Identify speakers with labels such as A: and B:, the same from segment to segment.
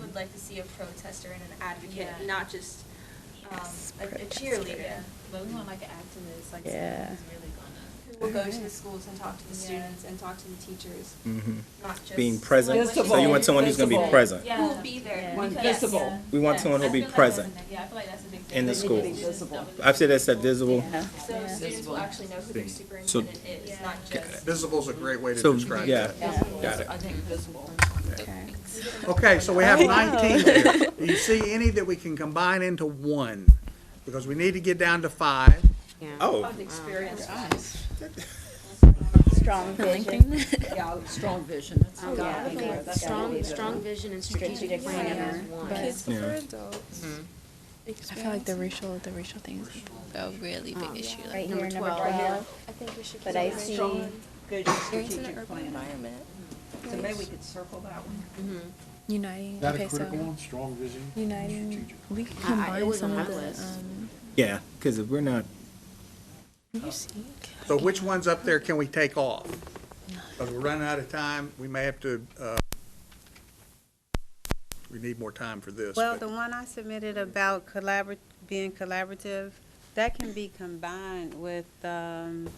A: would like to see a protester and an advocate,
B: Yeah.
A: not just um,
C: Yes,
A: a a
C: protester.
A: cheerleader.
B: But we want like an activist, like
C: Yeah.
B: someone who's really gonna.
A: Who will go to the schools and talk to the
B: Yeah.
A: students and talk to the teachers,
D: Mm-hmm.
A: not just.
D: Being present.
A: someone
D: So you want
A: who's-
D: someone who's going to be
E: Visible.
D: present.
B: Yeah.
A: Who will be there.
B: Yeah.
E: One
A: because-
E: visible.
A: Yes.
D: We want
A: Yes.
D: someone who'll
B: I
D: be
B: feel like
D: present.
B: that's a- Yeah, I feel like that's a big thing.
D: in the
B: They need
D: school.
B: to be visible.
D: I've said that's that visible.
C: Yeah.
A: So
B: Yeah.
A: students will actually know who their superintendent is, not just.
F: Visible's a great way to
D: So,
F: describe
D: yeah.
F: that.
C: Yeah.
D: Got it.
E: I think visible.
C: Okay.
F: Okay, so we have nineteen here. Do you see any that we can combine into one? Because we need to get down to five.
D: Oh,
A: Experience.
C: Strong vision.
E: Yeah, strong vision, that's.
C: Um, yeah, I think that's gotta be
G: Strong,
C: the-
G: strong vision and
C: strategic
G: strategic
C: planner.
G: planning.
H: Kids
D: Yeah.
H: for adults.
G: I feel like the racial, the racial things a really big issue.
C: um, Right
G: Like
C: here,
G: number
C: number
G: twelve.
C: twelve.
H: I think we should.
C: But
H: keep
C: I
H: it
C: see-
H: strong.
E: Good
H: Experience in an
E: strategic
H: urban
E: plan.
H: environment.
E: So maybe we could circle that one.
H: Uniting,
I: That a critical one, strong vision.
H: uniting,
G: We can
E: I- I
G: combine
E: was
G: some
E: on
G: of
E: that
G: the,
E: list.
G: um,
D: yeah, because if we're not,
F: So which ones up there can we take off? Because we're running out of time, we may have to, uh, we need more time for this.
J: Well,
F: but-
J: the one I submitted about collabor, being collaborative, that can be combined with, um,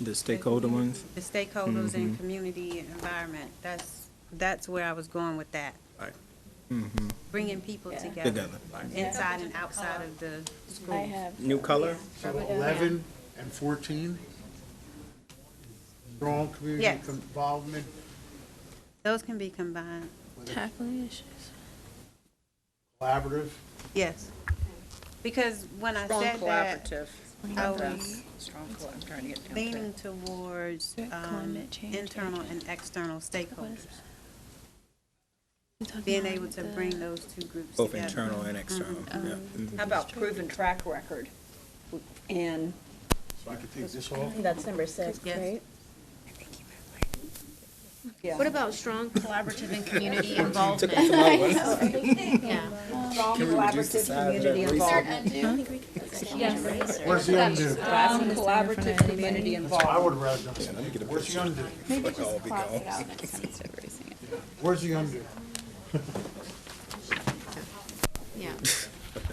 D: the stakeholder ones,
J: the stakeholders
D: Mm-hmm.
J: and community environment. That's, that's where I was going with that.
F: Right.
J: Bringing people together,
D: together.
J: inside and outside of the school.
C: I have.
D: New color?
I: So eleven and fourteen. Strong community
J: Yes.
I: involvement.
J: Those can be combined,
G: tackling issues.
I: Collaborative.
J: yes. Because when I said that, I was
E: Strong collaborative, I'm trying to get down to.
J: leaning towards, um,
G: Climate change.
J: internal and external stakeholders.
G: We're talking
J: Being
G: about
J: able to
G: the-
J: bring those two groups
D: Both
J: together.
D: internal and external.
G: Mm-hmm.
D: Yeah.
G: Uh-huh.
D: Mm-hmm.
E: How about proven track record? And
I: So I could take this off.
C: That's number six,
J: Yes.
C: right?
G: What about strong collaborative and community
D: Took
G: involvement?
D: us a long way.
G: Yeah.
E: strong
D: Can we reduce the
E: collaborative
D: size of that
E: community
D: research?
E: involvement.
I: Where's the undo?
E: Strong collaborative community
I: I
E: involvement.
I: would rather done something. Where's the undo?
D: Fuck all be gone.
I: Where's the undo?
G: Yeah.
I: Sorry.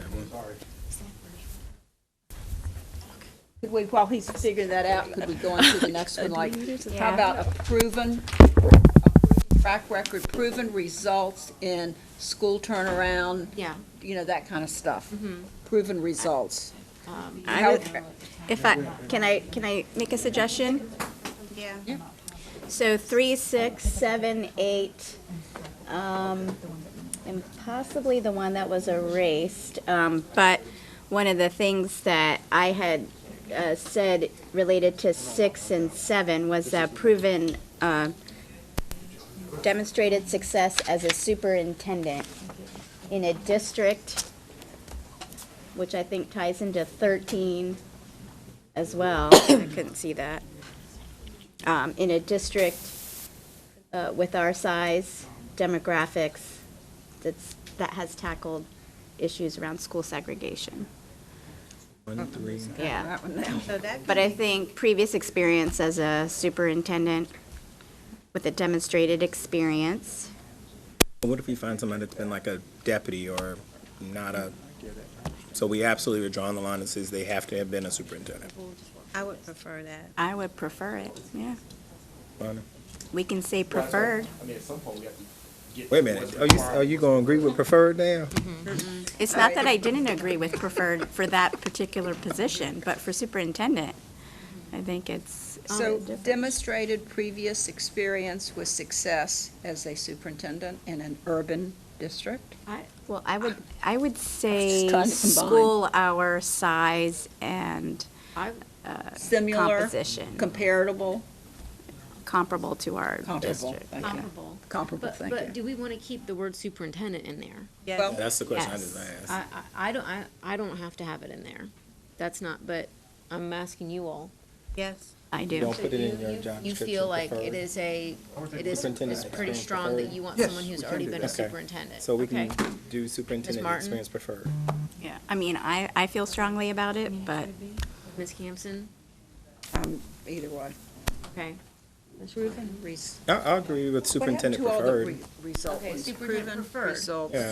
E: Could we, while he's figuring that out, could we go on to the next one, like, how about a proven, a track record, proven results in school turnaround,
G: Yeah. Mm-hmm.
E: you know, that kind of stuff? Proven results.
B: I
G: Um,
E: How-
B: would- If I, can I, can I make a suggestion?
J: Yeah.
B: So three, six, seven, eight,
H: and possibly the one that was erased. Um, but one of the things that I had uh, said related to six and seven was that proven uh, demonstrated success as a superintendent in a district, which I think ties into thirteen as well. I couldn't see that. Um, in a district uh, with our size, demographics, that's, that has tackled issues around school segregation.
D: One, three.
H: Yeah.
J: So that
H: But I think previous experience as a superintendent with a demonstrated experience.
D: What if we find somebody that's been like a deputy or not a, so we absolutely are drawing the line and says they have to have been a superintendent.
J: I would prefer that.
H: I would prefer it, yeah.
D: Fine.
H: We can say preferred.
D: Wait a minute, are you, are you gonna agree with preferred now?
H: It's not that I didn't agree with preferred for that particular position, but for superintendent, I think it's.
E: So demonstrated previous experience with success as a superintendent in an urban district?
H: I- Well, I would, I would say
E: Kind of combined.
H: school hour, size, and
E: Similar,
H: composition,
E: comparable,
H: comparable to our
E: comparable,
H: district.
E: thank you.
G: Comparable.
E: Comparable,
G: But,
E: thank you.
G: but do we want to keep the word superintendent in there?
E: Well,
D: That's the question I
H: Yes.
D: just asked.
G: I, I, I don't, I, I don't have to have it in there. That's not, but I'm asking you all.
J: Yes.
H: I do.
D: Don't put it in your job description.
G: You feel like it
D: preferred.
G: is a, it
D: Superintendent
G: is, it's pretty
D: experience
G: strong that
D: preferred.
G: you want
I: Yes,
G: someone who's
I: we can
G: already
I: do
G: been a
I: that.
D: Okay.
G: superintendent.
D: So we
G: Okay.
D: can do superintendent
G: Martin?
D: experience preferred.
H: Yeah, I mean, I, I feel strongly about it, but
G: Ms. Campson,
E: Um, Either way.
G: okay.
E: Proven res-
D: I, I agree with superintendent
E: What happened to all the
D: preferred.
E: re- results?
G: Okay, superintendent
E: Proven
G: preferred.
E: Results.
D: Yeah.